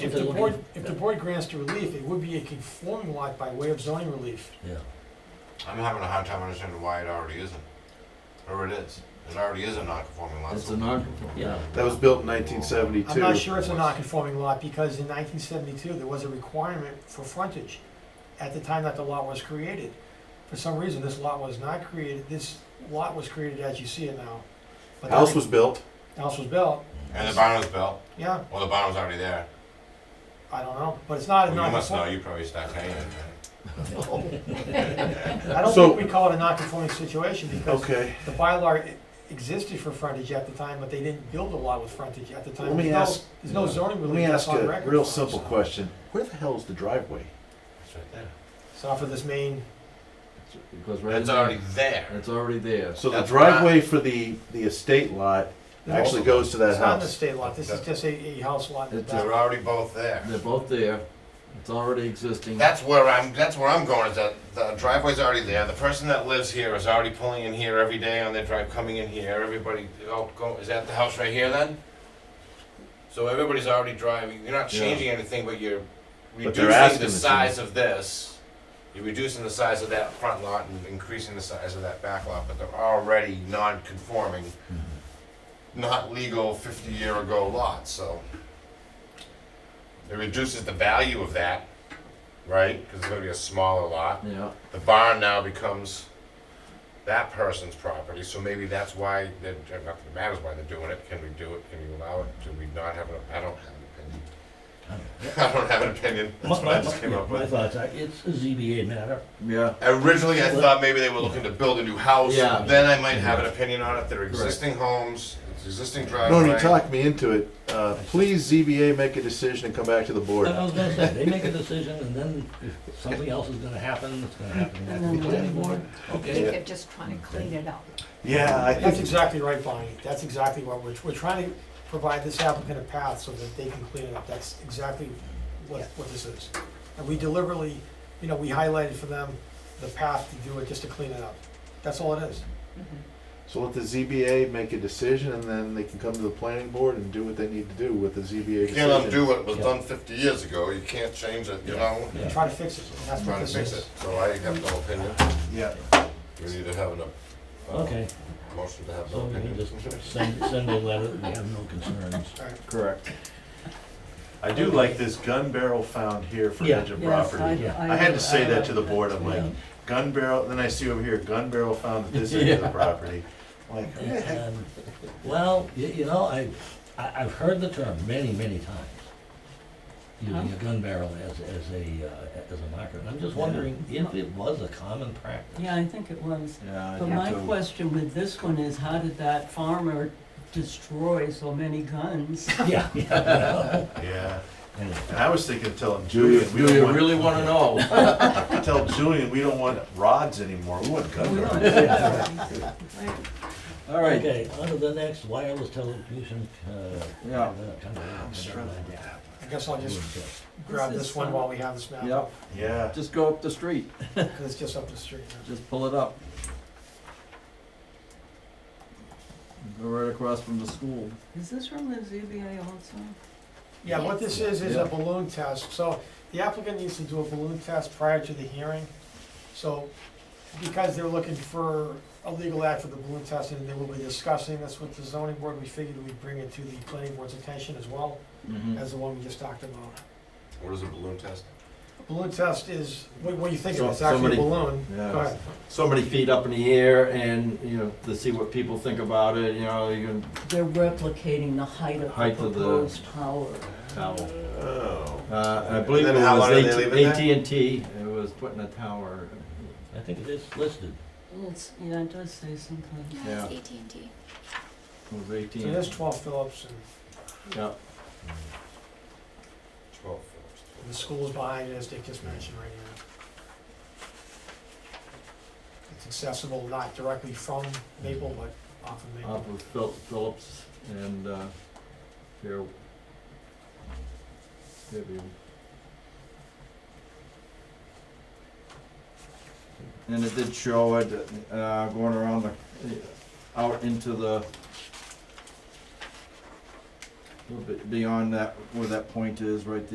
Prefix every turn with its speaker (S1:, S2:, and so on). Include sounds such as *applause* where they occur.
S1: If the board, if the board grants the relief, it would be a conforming lot by way of zoning relief.
S2: Yeah,
S3: I'm having a hard time understanding why it already isn't, or it is. It already is a non-conforming lot.
S2: it's
S3: so-
S2: a non, yeah.
S4: *laughs* That was built in 1972.
S1: I'm not sure it's a non-conforming lot, because in nineteen seventy-two, there was a requirement for frontage at the time that the lot was created. For some reason, this lot was not created, this lot was created as you see it now. But that
S4: House was built.
S1: House was built,
S3: And the barn was built,
S1: yeah,
S3: well, the barn was already there.
S1: I don't know, but it's not a
S3: Well, you must know,
S1: non-conforming.
S3: you probably stopped paying it.
S1: I don't
S4: So-
S1: think we call it a non-conforming situation, because
S4: Okay.
S1: the bylaw e- existed for frontage at the time, but they didn't build a lot with frontage at the time.
S4: Let me
S1: There's no-
S4: ask- uh,
S1: There's no zoning
S4: Let me
S1: relief that's
S4: ask
S1: on
S4: a
S1: record.
S4: real
S1: for us.
S4: simple question. Where the hell is the driveway?
S3: It's right there.
S1: It's off of this main,
S2: It goes right.
S3: It's
S2: in.
S3: already there.
S2: It's already there.
S4: So the
S3: That's
S4: driveway for the, the estate lot actually goes to that
S1: it's not an
S4: house. uh,
S1: estate lot, this is just a, a house lot in the
S2: It's
S3: They're
S1: back.
S3: already both there.
S2: They're both there. It's already existing.
S3: That's where I'm. That's where I'm going. Is that the driveway's already there? The person that lives here is already pulling in here every day on their drive, coming in here. Everybody, oh, go, is that the house right here then? So everybody's already driving. You're not
S2: Yeah.
S3: changing anything, but you're
S4: But they're
S3: reducing
S4: asking
S3: the
S4: to
S3: size of this. You're reducing the size of that front lot and increasing the size of that back lot, but they're already non-conforming, not legal fifty-year-ago lots. So it reduces the value of that, right? Because it's going to be a smaller lot.
S2: Yeah,
S3: The barn now becomes that person's property, so maybe that's why, they're uh, not that it matters why they're doing it. Can we do it? Can we allow it? Do we not have an, I don't have an opinion. *laughs* I don't have an opinion. *laughs* That's what I just came up
S5: My
S3: with.
S5: thoughts are, it's a ZBA matter.
S2: yeah.
S3: Originally, I thought maybe they were looking to build a new house.
S2: Yeah.
S3: Then I might have an opinion on it. They're existing homes, it's existing driveway.
S4: Norm, you talked me into it. Uh, Please ZBA make a decision and come back to the board.
S5: I was gonna say, they make a decision and then if something else is gonna happen, it's gonna happen back to the planning board.
S6: I
S5: Okay,
S6: think they're just trying to clean it up.
S4: Yeah, I
S1: That's
S4: think,
S1: exactly right, Bonnie, that's exactly what we're, we're trying to provide this applicant a path so that they can clean it up, that's exactly what, what this is. And we deliberately, you know, we highlighted for them the path to do it, just to clean it up, that's all it is.
S4: so let the ZBA make a decision and then they can come to the planning board and do what they need to do with the ZBA
S3: You can't
S4: decision.
S3: undo what was done fifty years ago. You can't change it, you know?
S1: And try to fix it, and that's what
S3: Trying
S1: this
S3: to fix
S1: is.
S3: it. So I have no opinion.
S4: Yeah.
S3: We need to have an, uh,
S5: okay,
S3: motion to have no
S5: so we can
S3: opinion.
S5: just send, send a letter, we have no concerns.
S1: All right.
S2: Correct.
S7: I do like this gun barrel found here for
S5: Yeah.
S7: edge of
S8: Yes, uh,
S7: property.
S5: Yeah.
S7: I had to say that to the board, I'm like,
S5: Yeah.
S7: gun barrel, then I see over here, gun barrel found at this end of the
S2: Yeah.
S7: property. I'm Like, who the heck
S5: And, Well, you, you know, I, I, I've heard the term many, many times, using a gun barrel as, as a, uh, as a marker. And I'm just wondering if it was a common
S2: *laughs*
S5: practice.
S8: Yeah, I think it was.
S2: Yeah.
S8: But my question with this one is, how did that farmer destroy so
S7: *laughs*
S8: many guns?
S5: *laughs* Yeah, yeah.
S7: Yeah,
S5: Anyway.
S7: and I was thinking of telling
S2: Do you,
S7: Julian, we
S2: do you
S7: don't want,
S2: really wanna know?
S7: I tell Julian, we don't want rods anymore, we want gun
S8: We
S7: barrels.
S8: don't-
S2: *laughs* All right,
S5: Okay, on to the next wireless telecommunication, uh.
S2: yeah.
S5: I'm
S7: struggling with
S1: I guess I'll just
S3: Mm.
S1: grab
S8: This
S1: this
S8: is
S1: one
S8: fun.
S1: while we have this map,
S2: Yep.
S1: up,
S7: Yeah,
S2: Just go up the street,
S1: 'cause it's just up the street.
S2: just pull it up. Go right across from the school.
S8: Is this from the ZBA also?
S1: Yeah, what this is, is a
S2: Yeah.
S1: balloon test, so the applicant needs to do a balloon test prior to the hearing. So, because they're looking for a legal act for the balloon test, and they will be discussing this with the zoning board, we figured we'd bring it to the planning board's attention as well,
S2: Mhm.
S1: as the one we just talked about.
S3: What is a balloon test?
S1: Balloon test is, what, what do you think
S2: So-
S1: of it? It's actually
S2: somebody-
S1: a balloon.
S2: yeah.
S1: Go ahead.
S2: So many feet up in the air and, you know, to see what people think about it, you know, you can
S8: They're replicating the height of
S2: Height
S8: the
S2: of the-
S8: proposed tower.
S2: towel.
S3: Oh.
S2: Uh, I believe it
S3: then how long do they leave it
S2: was
S3: there?
S2: AT&T, it was putting a tower,
S5: I think it is listed.
S8: It's, yeah, it does say something.
S2: Yeah.
S6: Yes, AT&T.
S2: it was AT&T.
S1: So there's twelve Phillips, and
S2: Yeah,
S3: Twelve.
S1: the school's behind it, as Dick just mentioned right here. It's accessible not directly from Maple, but off of Maple.
S2: off of Phil- Phillips and, uh, Fair. Fairview. And it did show it, uh, going around the, out into the, a little bit beyond that, where that point is, right there.